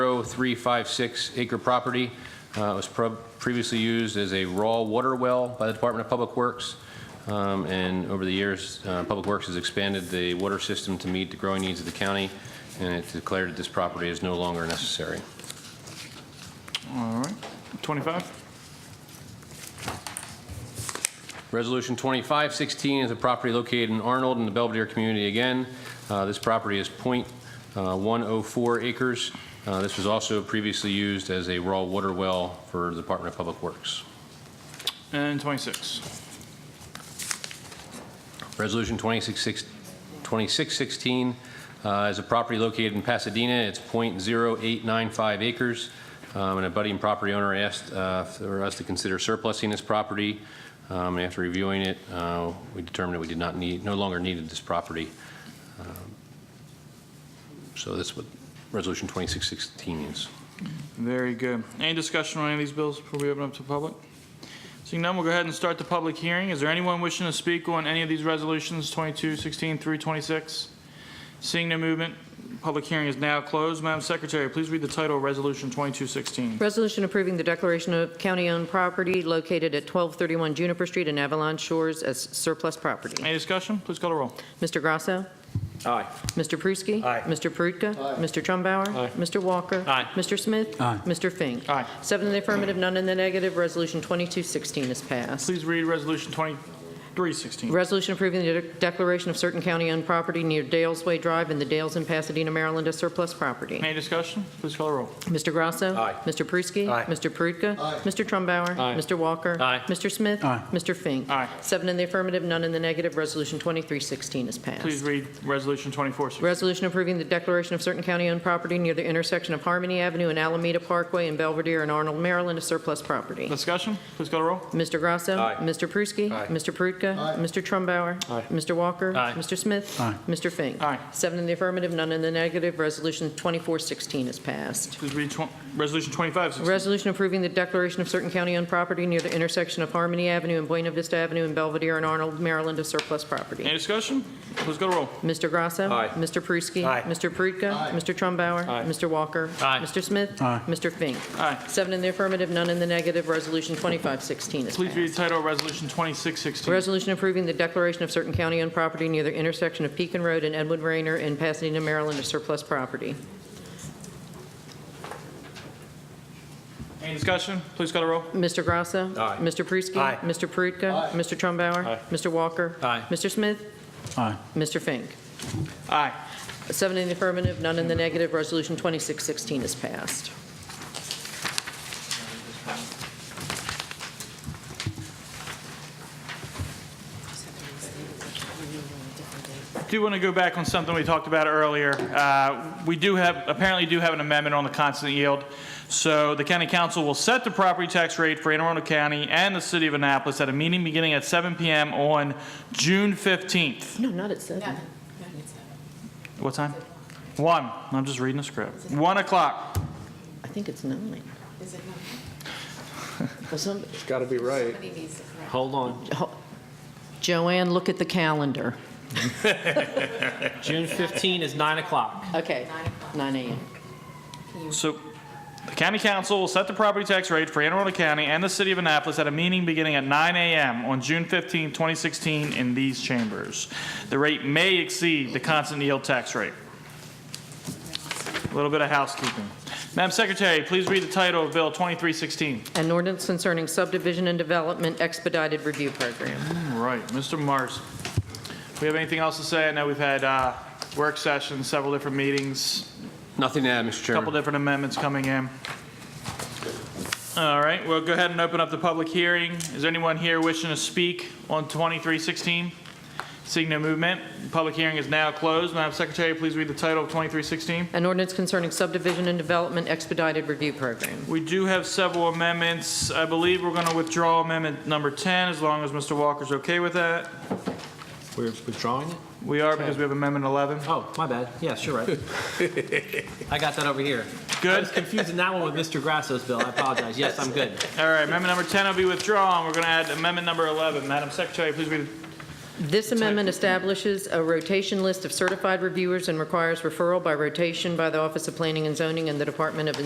0.0356 acre property. Uh, It was prob- previously used as a raw water well by the Department of Public Works. Um, And over the years, uh, Public Works has expanded the water system to meet the growing needs of the county, and it declared that this property is no longer necessary. All right. 25? Resolution 2516 is a property located in Arnold in the Belvedere community again. Uh, This property is uh, .104 acres. Uh, This was also previously used as a raw water well for the Department of Public Works. And 26? Resolution 26 2616 uh, is a property located in Pasadena. It's .0895 acres, Um, and a budding property owner asked uh, for us to consider surplusing this property. Um, and After reviewing it, uh, we determined that we did not need, no longer needed this property. Um, So that's what Resolution 2616 is. Very good. Any discussion on any of these bills before we open up to the public? Seeing none, we'll go ahead and start the public hearing. Is there anyone wishing to speak on any of these resolutions, 22, 16 through 26? Seeing no movement, public hearing is now closed. Madam Secretary, please read the title of Resolution 2216. Resolution approving the declaration of county-owned property located at 1231 Juniper Street in Avalon Shores as surplus property. Any discussion? Please call the roll. Mr. Grasso? Aye. Mr. Pruski? Aye. Mr. Perutka? Mr. Trumpbauer? Aye. Mr. Walker? Aye. Mr. Smith? Aye. Mr. Fink? Aye. Seven in the affirmative, none in the negative. Resolution 2216 is passed. Please read Resolution 2316. Resolution approving the de- declaration of certain county-owned property near Dales Way Drive in the Dales in Pasadena, Maryland as surplus property. Any discussion? Please call the roll. Mr. Grasso? Aye. Mr. Pruski? Aye. Mr. Perutka? Mr. Trumpbauer? Aye. Mr. Walker? Aye. Mr. Smith? Aye. Mr. Fink? Aye. Seven in the affirmative, none in the negative. Resolution 2316 is passed. Please read Resolution 2416. Resolution approving the declaration of certain county-owned property near the intersection of Harmony Avenue and Alameda Parkway in Belvedere and Arnold, Maryland as surplus property. Discussion? Please call the roll. Mr. Grasso? Aye. Mr. Pruski? Aye. Mr. Perutka? Mr. Trumpbauer? Aye. Mr. Walker? Aye. Mr. Smith? Aye. Mr. Fink? Aye. Seven in the affirmative, none in the negative. Resolution 2416 is passed. Please read twen- Resolution 2516. Resolution approving the declaration of certain county-owned property near the intersection of Harmony Avenue and Buena Vista Avenue in Belvedere and Arnold, Maryland as surplus Any property. discussion? Please go to roll. Mr. Grasso. Aye. Mr. Pruski. Aye. Mr. Perutka. Mr. Trumpbauer. Aye. Mr. Walker. Aye. Mr. Smith. Aye. Mr. Fink. Aye. Seven in the affirmative, none in the negative. Resolution 2516 is Please read the passed. title of Resolution 2616. Resolution approving the declaration of certain county-owned property near the intersection of Pekin Road and Edward Rayner in Pasadena, Maryland as surplus property. Any discussion? Please call the roll. Mr. Grasso. Aye. Mr. Pruski. Aye. Mr. Perutka. Mr. Trumpbauer. Aye. Mr. Walker. Aye. Mr. Smith. Aye. Mr. Fink. Aye. Seven in the affirmative, none in the negative. Resolution 2616 is passed. Do want to go back on something we talked about earlier. Uh, We do have, apparently do have an amendment on the constant yield. So the county council will set the property tax rate for Anne Arundel County and the city of Annapolis at a meeting beginning at 7 PM on June 15th. No, not at seven. uh, What time? 1. I'm just reading the script. 1 o'clock. I think it's nine. Is it not? Well, some- It's got to be right. Somebody needs to correct. Hold on. Jo- Joanne, look at the calendar. June 15 is 9 o'clock. Okay, nine AM. So the county council will set the property tax rate for Anne Arundel County and the city of Annapolis at a meeting beginning at 9 a.m. on June 15, 2016, in these chambers. The rate may exceed the constant yield tax rate. A little bit of housekeeping. Madam Secretary, please read the title of Bill 2316. An ordinance concerning subdivision and development expedited review program. All right, Mr. Mars. We have anything else to say? I know we've had uh, work sessions, several different meetings. Nothing to add, Mr. Chairman. Couple different amendments coming in. All right, we'll go ahead and open up the public hearing. Is there anyone here wishing to speak on 2316? Seeing no movement, public hearing is now closed. Madam Secretary, please read the title of 2316. An ordinance concerning subdivision and development expedited review program. We do have several amendments. I believe we're going to withdraw amendment number 10, as long as Mr. Walker's okay with that. We're withdrawing it? We are, because we have amendment 11. Oh, my bad. Yes, you're right. I got that over here. I Good? was confusing that one with Mr. Grasso's bill. I apologize. Yes, I'm good. All right, amendment number 10 will be withdrawn. We're going to add amendment number 11. Madam Secretary, please read This amendment establishes a rotation list of certified reviewers and requires referral by rotation by the Office of Planning and Zoning and the Department of